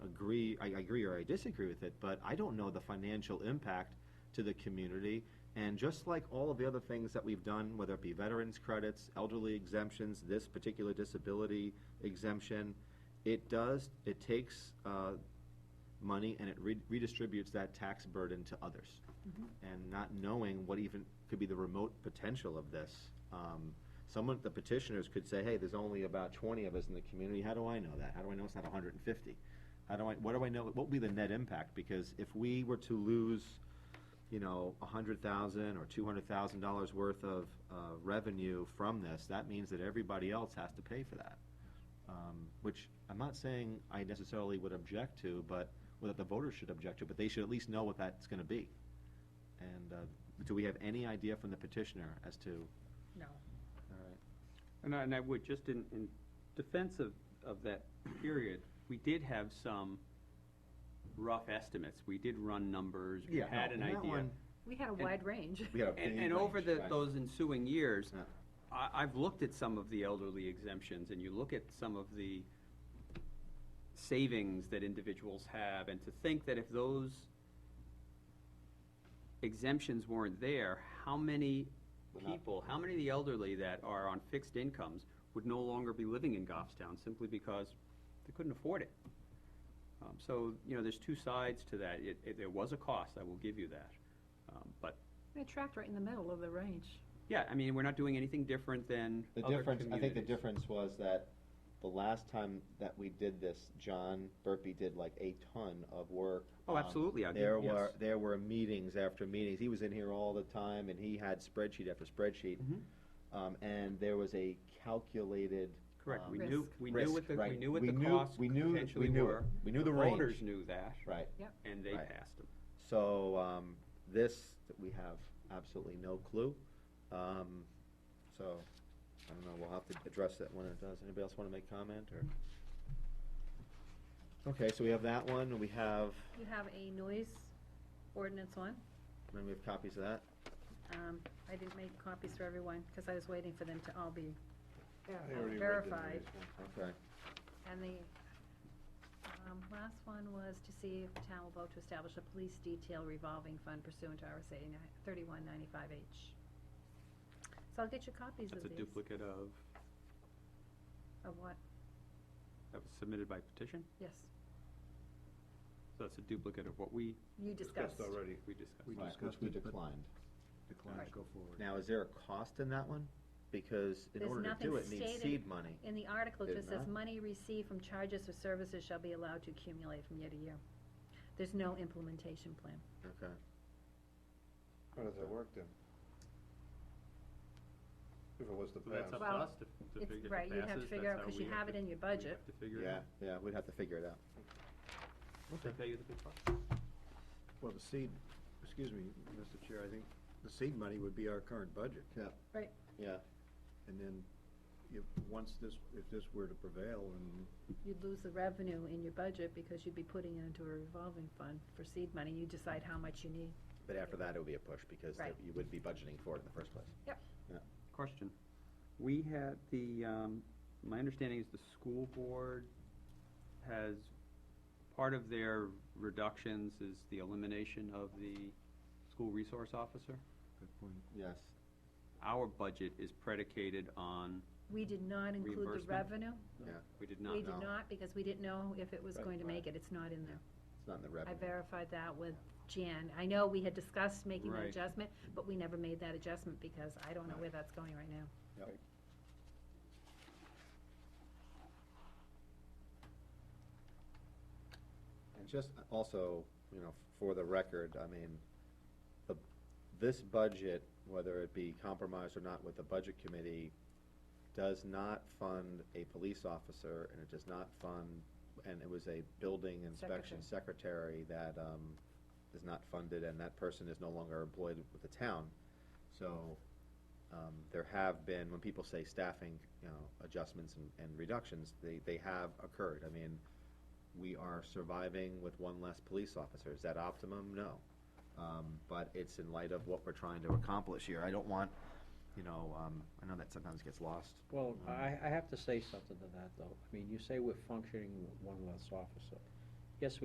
agree, I I agree or I disagree with it, but I don't know the financial impact to the community. And just like all of the other things that we've done, whether it be veterans credits, elderly exemptions, this particular disability exemption, it does, it takes uh, money and it re- redistributes that tax burden to others. And not knowing what even could be the remote potential of this. um, Someone, the petitioners could say, hey, there's only about twenty of us in the community, how do I know that? How do I know it's not hundred and fifty? How do I, what do I know, what would be the net impact? Because if we were to lose, you know, a hundred thousand or two hundred thousand dollars worth of uh, revenue from this, that means that everybody else has to pay for that. Um, Which I'm not saying I necessarily would object to, but, or that the voters should object to, but they should at least know what that's gonna be. And uh, do we have any idea from the petitioner as to, No. all right, And I, and I would, just in, in defense of, of that period, we did have some rough estimates. We did run numbers, we Yeah, no, had and an that idea. one- We had a And- wide range. we had a And, big and over range, the, right? those ensuing years, Yeah. I, I've looked at some of the elderly exemptions, and you look at some of the savings that individuals have, and to think that if those exemptions weren't there, how many Would not- people, how many of the elderly that are on fixed incomes would no longer be living in Goffstown simply because they couldn't afford it? Um, so, you know, there's two sides to that. It, it, there was a cost, I will give you that. Um, but It tracked right in the middle of the range. yeah, I mean, we're not doing anything different than The other difference, I think the communities. difference was that the last time that we did this, John Burpee did like a ton of work. Oh, Um, absolutely, I did, There were, yes. there were meetings after meetings. He was in here all the time and he had spreadsheet after spreadsheet. Mhm. Um, and there was a calculated. Correct, we um, knew, Risk. we knew what risk, the, we right. knew what the knew- costs we knew- we potentially knew it. were. We knew the range, Voters knew that, right. and they Right. passed them. So, um, this, we have absolutely no clue. Um, so, I don't know, we'll have to address that when it does. Anybody else wanna make comment or? Okay, so we have that one, and we have, You have a noise ordinance one. then we have copies of that. Um, I didn't make copies for everyone because I was waiting for them to all be I already read the verified. notice one. Okay, And the, um, last one was to see if the town will vote to establish a police detail revolving fund pursuant to RSA thirty-one ninety-five H. So I'll get you copies of That's a these. duplicate of, Of what? that was submitted by petition, Yes, so that's a duplicate of what we, you discussed. already. we discussed. We Right, discussed which we it, but- declined. Decline, Right. go forward. Now, is there a cost in that one? Because in There's order to nothing do it, it needs stated. seed money. In the article, Did it just not? says, money received from charges or services shall be allowed to accumulate from year to year. There's no implementation plan. Okay, How does that work then? If it was the So that's past. up to Well, us to, to It's, figure if it right, you have to passes, figure that's out, how because we you have it to- in your we budget. have to figure it yeah, out. yeah, we'd have to figure it out. They Okay. pay you the big bucks. Well, the seed, excuse me, Mr. Chair, I think the seed money would be our current budget. Yeah. Right. Yeah, And then if, once this, if this were to prevail and You'd lose the revenue in your budget because you'd be putting it into a revolving fund for seed money. You decide how much you need. but after that, it would be a push, because Right. you would be budgeting for it in the first place. Question. We had the, um, my understanding is the school board has, part of their reductions is the elimination of the school resource officer. that point, Yes, Our budget is predicated on, We did not include the Reimbursement? revenue. yeah, we did not We know. no. did not, because we didn't know if it was Right, going to right. make it. It's not in there. it's not in the I revenue. verified that with Jan. I know we had discussed making that Right. adjustment, but we never made that adjustment because I don't know Right. where that's going right now. And just also, you know, for the record, I mean, the, this budget, whether it be compromised or not with the budget committee, does not fund a police officer and it does not fund, and it was a building inspection secretary that, um, is not funded and that person is no longer employed with the town. So, um, there have been, when people say staffing, you know, adjustments and, and reductions, they, they have occurred. I mean, we are surviving with one less police officer. Is that optimum? No. Um, but it's in light of what we're trying to accomplish here. I don't want, you know, um, I know that sometimes gets lost. Well, I, I have to say something to that, though. I mean, you say we're functioning with one less officer.